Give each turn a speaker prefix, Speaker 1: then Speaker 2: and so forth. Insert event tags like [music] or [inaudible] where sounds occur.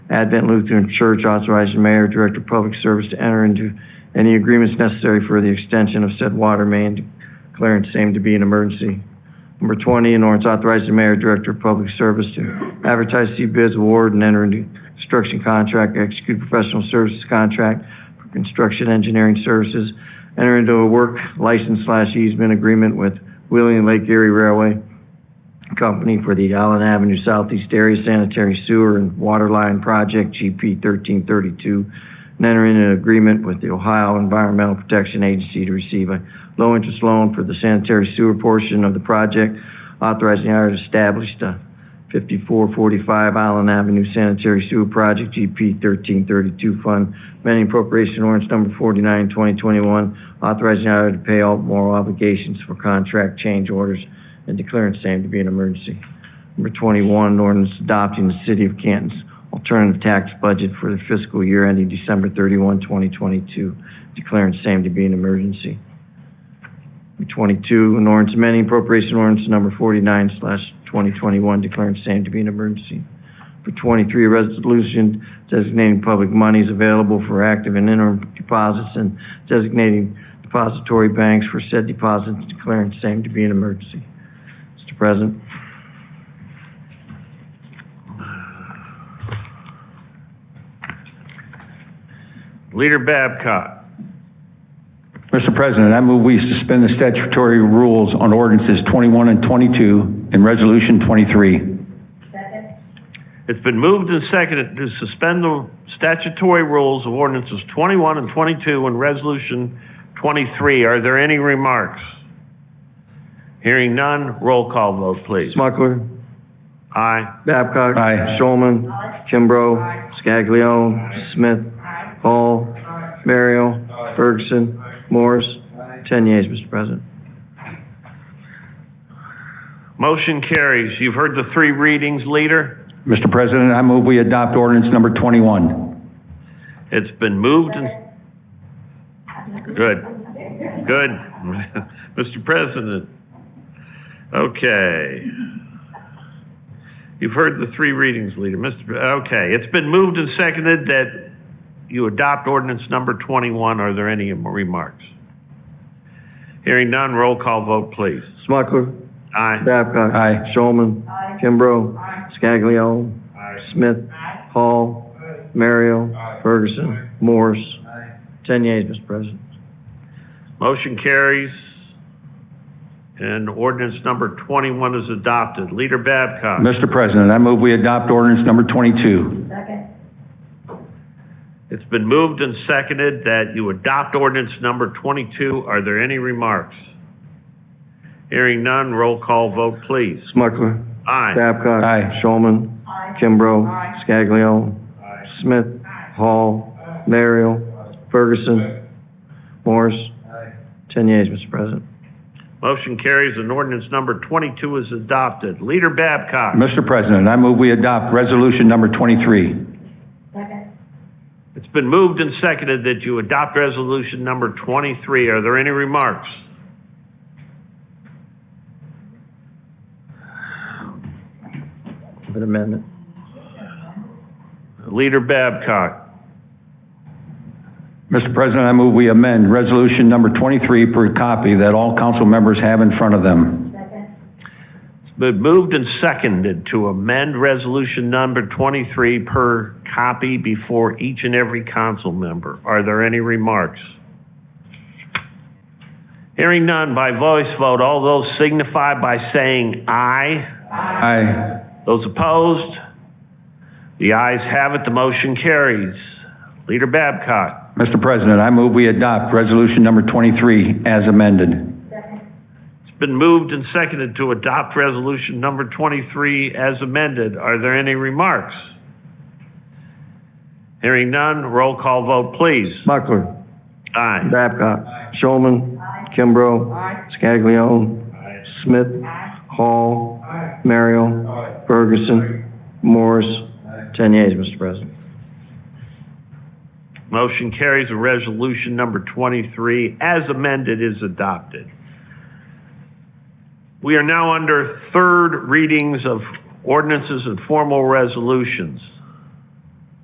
Speaker 1: Advent Lutheran Church authorized the mayor, director of public service to enter into any agreements necessary for the extension of said water main, declaring same to be an emergency. Number 20, an ordinance authorizing the mayor, director of public service to advertise, see bids, award, and enter into construction contract, execute professional services contract for construction engineering services, enter into a work license slash easement agreement with Wheeling and Lake Erie Railway Company for the Allen Avenue Southeast Area Sanitary Sewer and Water Line Project, GP 1332, and enter into an agreement with the Ohio Environmental Protection Agency to receive a low-interest loan for the sanitary sewer portion of the project, authorizing the to establish the 5445 Island Avenue Sanitary Sewer Project, GP 1332 Fund, amending appropriation ordinance number 49, 2021, authorizing the auditor to pay all moral obligations for contract change orders and declaring same to be an emergency. Number 21, an ordinance adopting the City of Canton's alternative tax budget for the fiscal year ending December 31, 2022, declaring same to be an emergency. Number 22, an ordinance amending appropriation ordinance number 49 slash 2021, declaring same to be an emergency. For 23, a resolution designating public monies available for active and interim deposits and designating depository banks for said deposits, declaring same to be an emergency. Mr. President.
Speaker 2: Leader Babcock.
Speaker 3: Mr. President, I move we suspend the statutory rules on ordinances 21 and 22 and Resolution 23.
Speaker 2: It's been moved and seconded to suspend the statutory rules of ordinances 21 and 22 and Resolution 23. Are there any remarks? Hearing none, roll call vote, please.
Speaker 1: Smucker.
Speaker 2: Aye.
Speaker 1: Babcock.
Speaker 3: Aye.
Speaker 1: Showman. Kimbrough. Scaglione. Smith. Hall. Merrill. Ferguson. Morris. Ten yeas, Mr. President.
Speaker 2: Motion carries. You've heard the three readings, Leader.
Speaker 3: Mr. President, I move we adopt ordinance number 21.
Speaker 2: It's been moved and... Good. Good. [laughs] Mr. President. Okay. You've heard the three readings, Leader. Mr. Pre- Okay, it's been moved and seconded that you adopt ordinance number 21. Are there any remarks? Hearing none, roll call vote, please.
Speaker 1: Smucker.
Speaker 2: Aye.
Speaker 1: Babcock.
Speaker 3: Aye.
Speaker 1: Showman. Kimbrough. Scaglione. Smith. Hall. Merrill. Ferguson. Morris. Ten yeas, Mr. President.
Speaker 2: Motion carries, and ordinance number 21 is adopted. Leader Babcock?
Speaker 3: Mr. President, I move we adopt ordinance number 22.
Speaker 2: It's been moved and seconded that you adopt ordinance number 22. Are there any remarks? Hearing none, roll call vote, please.
Speaker 1: Smucker.
Speaker 2: Aye.
Speaker 1: Babcock.
Speaker 3: Aye.
Speaker 1: Showman. Kimbrough. Scaglione. Smith. Hall. Merrill. Ferguson. Morris. Ten yeas, Mr. President.
Speaker 2: Motion carries, and ordinance number 22 is adopted. Leader Babcock?
Speaker 3: Mr. President, I move we adopt Resolution number 23.
Speaker 2: It's been moved and seconded that you adopt resolution number 23. Are there any remarks?
Speaker 1: An amendment.
Speaker 2: Leader Babcock?
Speaker 3: Mr. President, I move we amend Resolution number 23 per copy that all council members have in front of them.
Speaker 2: Been moved and seconded to amend resolution number 23 per copy before each and every council member. Are there any remarks? Hearing none by voice vote, all those signify by saying aye.
Speaker 3: Aye.
Speaker 2: Those opposed? The ayes have it, the motion carries. Leader Babcock?
Speaker 3: Mr. President, I move we adopt Resolution number 23 as amended.
Speaker 2: It's been moved and seconded to adopt resolution number 23 as amended. Are there any remarks? Hearing none, roll call vote, please.
Speaker 1: Smucker.
Speaker 2: Aye.
Speaker 1: Babcock. Showman. Kimbrough. Scaglione. Smith. Hall. Merrill. Ferguson. Morris. Ten yeas, Mr. President.
Speaker 2: Motion carries, and resolution number 23, as amended, is adopted. We are now under third readings of ordinances and formal resolutions.